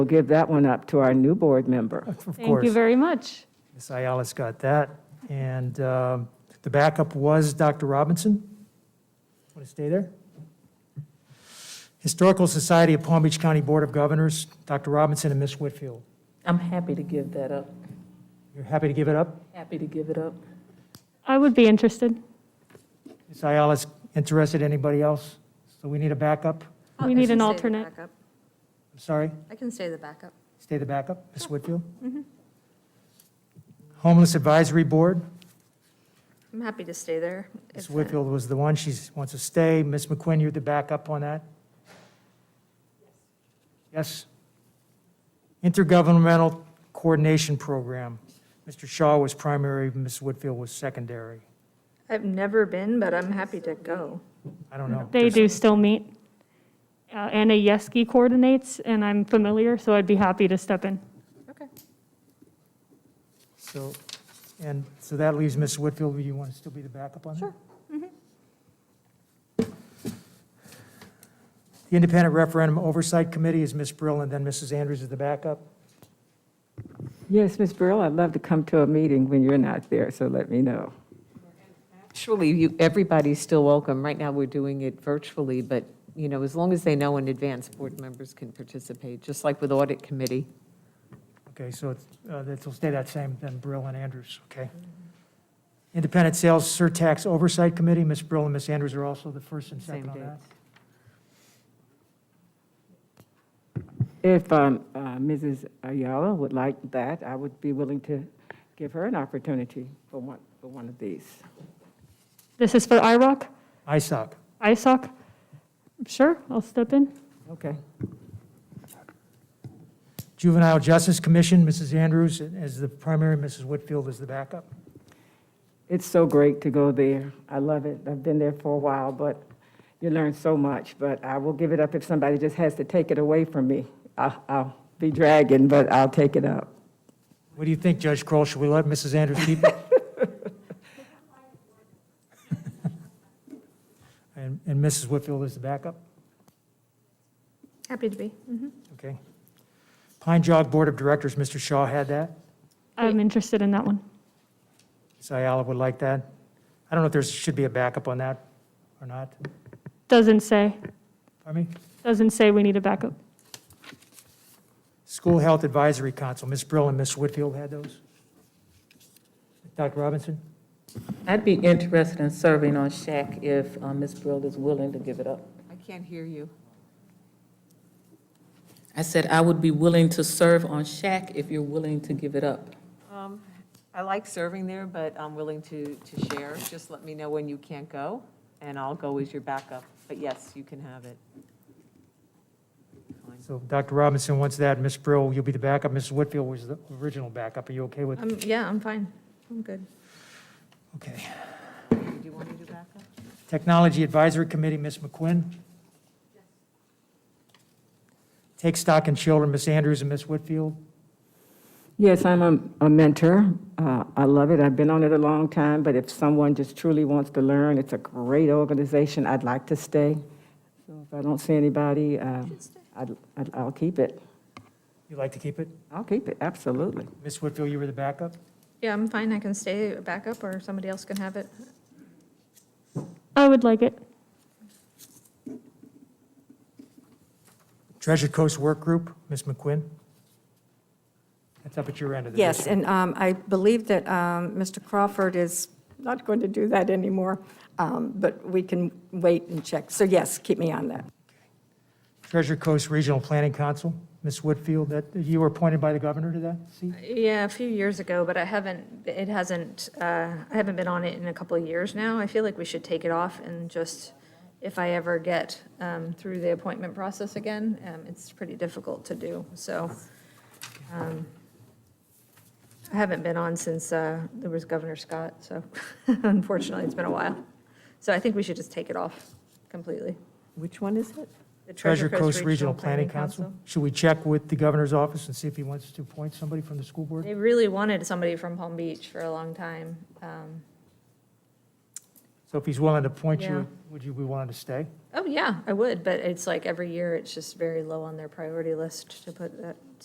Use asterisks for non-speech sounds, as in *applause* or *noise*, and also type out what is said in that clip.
We'll give that one up to our new board member. Of Thank you course, very much. Ms. Ayala's got that. And um, the backup was Dr. Robinson. Want to stay there? Historical Society of Palm Beach County Board of Governors, Dr. Robinson and Ms. Whitfield. I'm happy to give that up. You're happy to give it up? Happy to give it up. I would be interested. Ms. Ayala's interested, anybody else? So we need a backup? We need I can an stay the alternate. backup. I'm sorry, I can stay the backup. stay the backup, Ms. Whitfield? Mm-hmm. Homeless Advisory Board, I'm happy to stay there. Ms. if that- Whitfield was the one, she wants to stay. Ms. McQuinn, you're the backup on that? Yes? Intergovernmental Coordination Program. Mr. Shaw was primary, Ms. Whitfield was secondary. I've never been, but I'm happy to go. I don't know. They do still meet. Uh, Anna Yeski coordinates, and I'm familiar, so I'd be happy to step in. Okay. So, and so that leaves Ms. Whitfield, you want to still be the backup on that? Sure. Mm-hmm. The Independent Referendum Oversight Committee is Ms. Brill, and then Mrs. Andrews is the backup. Yes, Ms. Burl, I'd love to come to a meeting when you're not there, so let me know. Actually, you, everybody's still welcome. Right now, we're doing it virtually, but, you know, as long as they know in advance, board members can participate, just like with audit committee. Okay, so it's, uh, it'll stay that same, then Brill and Andrews, okay? Independent Sales Surtax Oversight Committee, Ms. Brill and Ms. Andrews are also the first and Same second on date. that. If um, uh, Mrs. Ayala would like that, I would be willing to give her an opportunity for one, for one of these. This is for IROC, ISOC, ISOC. Sure, I'll step in. Okay. Juvenile Justice Commission, Mrs. Andrews as the primary, Mrs. Whitfield is the backup. It's so great to go there. I love it. I've been there for a while, but you learn so much. But I will give it up if somebody just has to take it away from me. I'll, I'll be dragging, but I'll take it up. What do you think, Judge Kroll? Should we let Mrs. Andrews keep it? *laughs* And, and Mrs. Whitfield is the backup, Happy to be. okay? Pine Jog Board of Directors, Mr. Shaw had that. I'm interested in that one. Ms. Ayala would like that. I don't know if there should be a backup on that or not. Doesn't say, Pardon me? doesn't say we need a backup. School Health Advisory Council, Ms. Brill and Ms. Whitfield had those. Dr. Robinson? I'd be interested in serving on SHAC if uh, Ms. Brill is willing to give it up. I can't hear you. I said I would be willing to serve on SHAC if you're willing to give it up. Um, I like serving there, but I'm willing to, to share. Just let me know when you can't go, and I'll go as your backup. But yes, you can have it. Fine. So Dr. Robinson wants that, Ms. Brill, you'll be the backup, Mrs. Whitfield was the original backup, are you okay with? Um, yeah, I'm fine. I'm good. Okay. Do you want me to do backup? Technology Advisory Committee, Ms. McQuinn? Take Stock in Children, Ms. Andrews and Ms. Whitfield? Yes, I'm a, a mentor. Uh, I love it. I've been on it a long time, but if someone just truly wants to learn, it's a great organization. I'd like to stay. So if I don't see anybody, uh, I'd, I'd, I'll keep it. You'd like to keep it? I'll keep it, absolutely. Ms. Whitfield, you were the backup? Yeah, I'm fine. I can stay a backup or somebody else can have it. I would like it. Treasure Coast Work Group, Ms. McQuinn? That's up at your end of the Yes, and um, I believe that um, Mr. Crawford is not going to do that anymore, um, but we can wait and check. So yes, keep me on that. Treasure Coast Regional Planning Council, Ms. Whitfield, that, you were appointed by the governor to that seat? Yeah, a few years ago, but I haven't, it hasn't, uh, I haven't been on it in a couple of years now. I feel like we should take it off and just, if I ever get um, through the appointment process again, um, it's pretty difficult to do, so. um, I haven't been on since uh, there was Governor Scott, so *laughs* unfortunately, it's been a while. So I think we should just take it off completely. Which one is it? The Treasure Coast Regional Planning Council? Should we check with the governor's office and see if he wants to appoint somebody from the school board? They really wanted somebody from Palm Beach for a long time. um, So if he's willing to appoint Yeah. you, would you be willing to stay? Oh, yeah, I would, but it's like every year, it's just very low on their priority list to put that